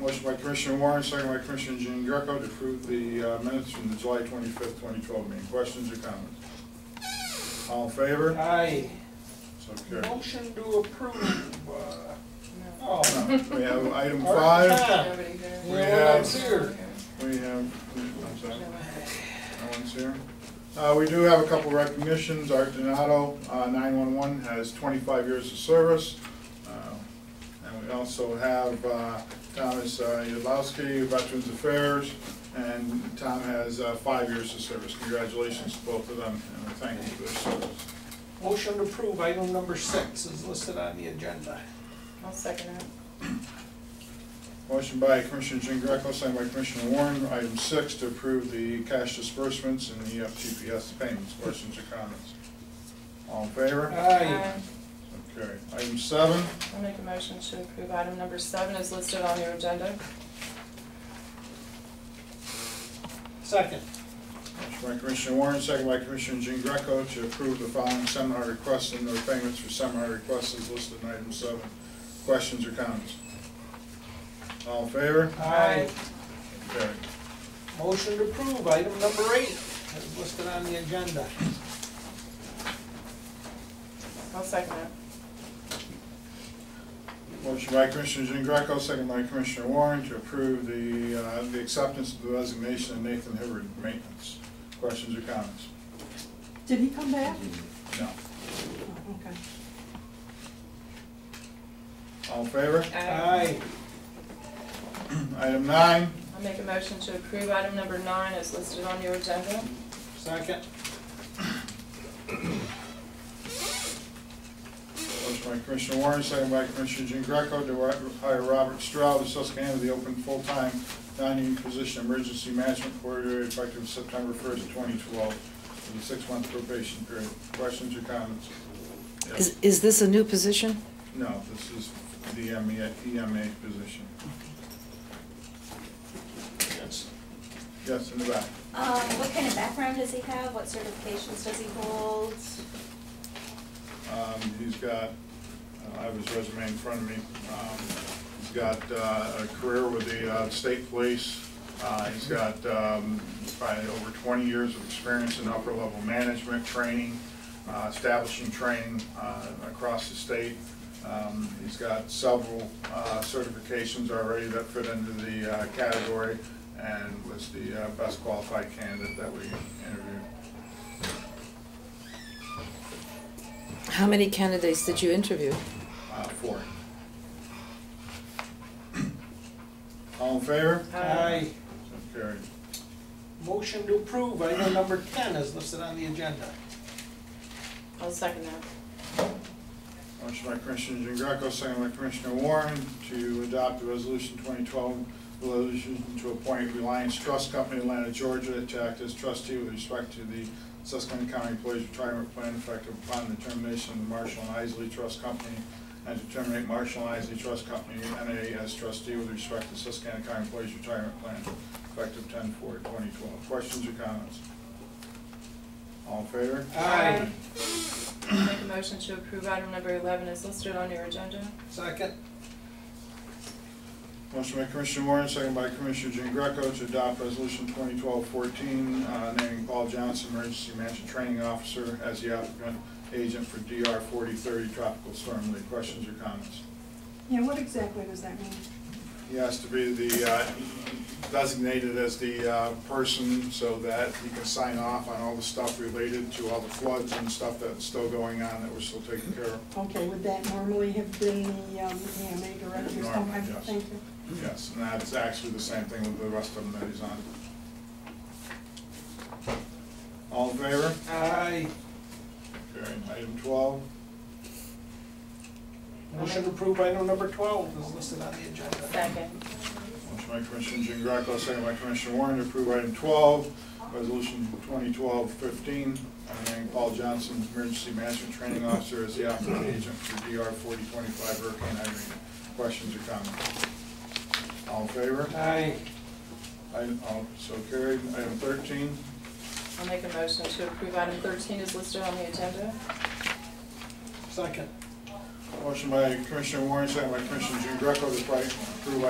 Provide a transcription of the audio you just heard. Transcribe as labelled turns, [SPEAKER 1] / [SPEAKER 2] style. [SPEAKER 1] Motion by Commissioner Warren, second by Commissioner Jean Greco to approve the uh, minutes from the July twenty-fifth, twenty twelve meeting. Questions or comments? All in favor?
[SPEAKER 2] Aye.
[SPEAKER 1] So carried.
[SPEAKER 2] Motion to approve. uh, Oh,
[SPEAKER 1] No, We have item
[SPEAKER 2] All
[SPEAKER 1] five,
[SPEAKER 2] right.
[SPEAKER 3] Nobody here.
[SPEAKER 1] We
[SPEAKER 2] Yeah,
[SPEAKER 1] have-
[SPEAKER 2] I'm here.
[SPEAKER 1] we have, I'm sorry, no one's here. Uh, we do have a couple recognitions. Art Donato, uh, nine-one-one, has twenty-five years of service. Uh, And we also have, uh, Thomas uh, Yudlowski, Veterans Affairs, and Tom has, uh, five years of service. Congratulations to both of them, and we thank you for their service.
[SPEAKER 2] Motion to approve item number six is listed on the agenda.
[SPEAKER 3] I'll second it.
[SPEAKER 1] Motion by Commissioner Jean Greco, signed by Commissioner Warren, item six, to approve the cash disbursements and E the FTPS payments. Questions or comments? All in favor?
[SPEAKER 2] Aye.
[SPEAKER 1] Okay. Item seven,
[SPEAKER 3] I'll make a motion to approve item number seven is listed on your agenda.
[SPEAKER 2] Second.
[SPEAKER 1] motion by Commissioner Warren, second by Commissioner Jean Greco, to approve the following seminar requests and their payments for seminar requests as listed in item seven. Questions or comments? All in favor?
[SPEAKER 2] Aye.
[SPEAKER 1] Carried.
[SPEAKER 2] Motion to approve item number eight is listed on the agenda.
[SPEAKER 3] I'll second it.
[SPEAKER 1] Motion by Commissioner Jean Greco, second by Commissioner Warren to approve the, uh, the acceptance of the resignation of Nathan Hibbard Maintenance. Questions or comments?
[SPEAKER 4] Did he come back?
[SPEAKER 1] No.
[SPEAKER 4] Oh, Okay.
[SPEAKER 1] All in favor?
[SPEAKER 2] Aye.
[SPEAKER 1] Item nine,
[SPEAKER 3] I'll make a motion to approve item number nine is listed on your agenda.
[SPEAKER 2] Second.
[SPEAKER 1] motion by Commissioner Warren, second by Commissioner Jean Greco to ri- hire Robert Stroud of Susquehanna to the open full-time non-union position emergency management coordinator effective September first, twenty twelve, for the six-month probation period. Questions or comments?
[SPEAKER 5] Is, is this a new position?
[SPEAKER 1] No, this is the E EMA, EMA position. Yes. Yes, in the back.
[SPEAKER 6] Um, what kind of background does he have? What certifications does he hold?
[SPEAKER 1] Um, he's got, uh, I have his resume in front of me. Um, he's got, uh, a career with the, uh, state police. Uh, he's got, um, probably over twenty years of experience in upper level management, training, uh, establishing training, uh, across the state. Um, he's got several, uh, certifications already that fit into the, uh, category and was the, uh, best qualified candidate that we interviewed.
[SPEAKER 5] How many candidates did you interview?
[SPEAKER 1] Uh, four. All in favor?
[SPEAKER 2] Aye.
[SPEAKER 1] So carried.
[SPEAKER 2] Motion to approve item number ten is listed on the agenda.
[SPEAKER 3] Um, I'll second that.
[SPEAKER 1] Motion by Commissioner Jean Greco, second by Commissioner Warren to adopt the resolution 2012, resolution to appoint Reliance Trust Company, Atlanta, Georgia, to act as trustee with respect to the Susquehanna County Employees Retirement Plan effective upon the termination of the Marshall and Isley Trust Company, and to terminate Marshall and Isley Trust Company, NA, as trustee with respect to Susquehanna County Employees Retirement Plan effective 10/4/2012. Questions or comments? All in favor?
[SPEAKER 2] Aye.
[SPEAKER 3] I'll make a motion to approve item number eleven is listed on your agenda.
[SPEAKER 2] Second.
[SPEAKER 1] Motion by Commissioner Warren, second by Commissioner Jean Greco to adopt Resolution 2012-14, uh, naming Paul Johnson Emergency Management Training Officer as the applicant agent for DR 4030 Tropical Storm Lee. Questions or comments?
[SPEAKER 4] Yeah, what exactly does that mean?
[SPEAKER 1] He has to be the, uh, designated as the uh, person so that he can sign off on all the stuff related to all the floods and stuff that's still going on that we're still taking care of.
[SPEAKER 4] Okay, would that normally have been the um, EMA director's?
[SPEAKER 1] Norm,
[SPEAKER 4] Okay,
[SPEAKER 1] yes.
[SPEAKER 4] Thank you.
[SPEAKER 1] Yes, and that's actually the same thing with the rest of them that he's on. All in favor?
[SPEAKER 2] Aye.
[SPEAKER 1] Carried. Item twelve,
[SPEAKER 2] Motion to approve item number twelve is listed on the agenda.
[SPEAKER 3] Second.
[SPEAKER 1] motion by Commissioner Jean Greco, second by Commissioner Warren to approve item twelve, resolution 2012-15, honoring Paul Johnson, emergency management training officer as the operating agent for DR forty twenty-five Hurricane Irene. Questions or comments? All in favor?
[SPEAKER 2] Aye.
[SPEAKER 1] Item, all, so carried. Item thirteen,
[SPEAKER 3] I'll make a motion to approve item thirteen is listed on the agenda.
[SPEAKER 2] Second.
[SPEAKER 1] motion by Commissioner Warren, second by Commissioner Jean Greco to approve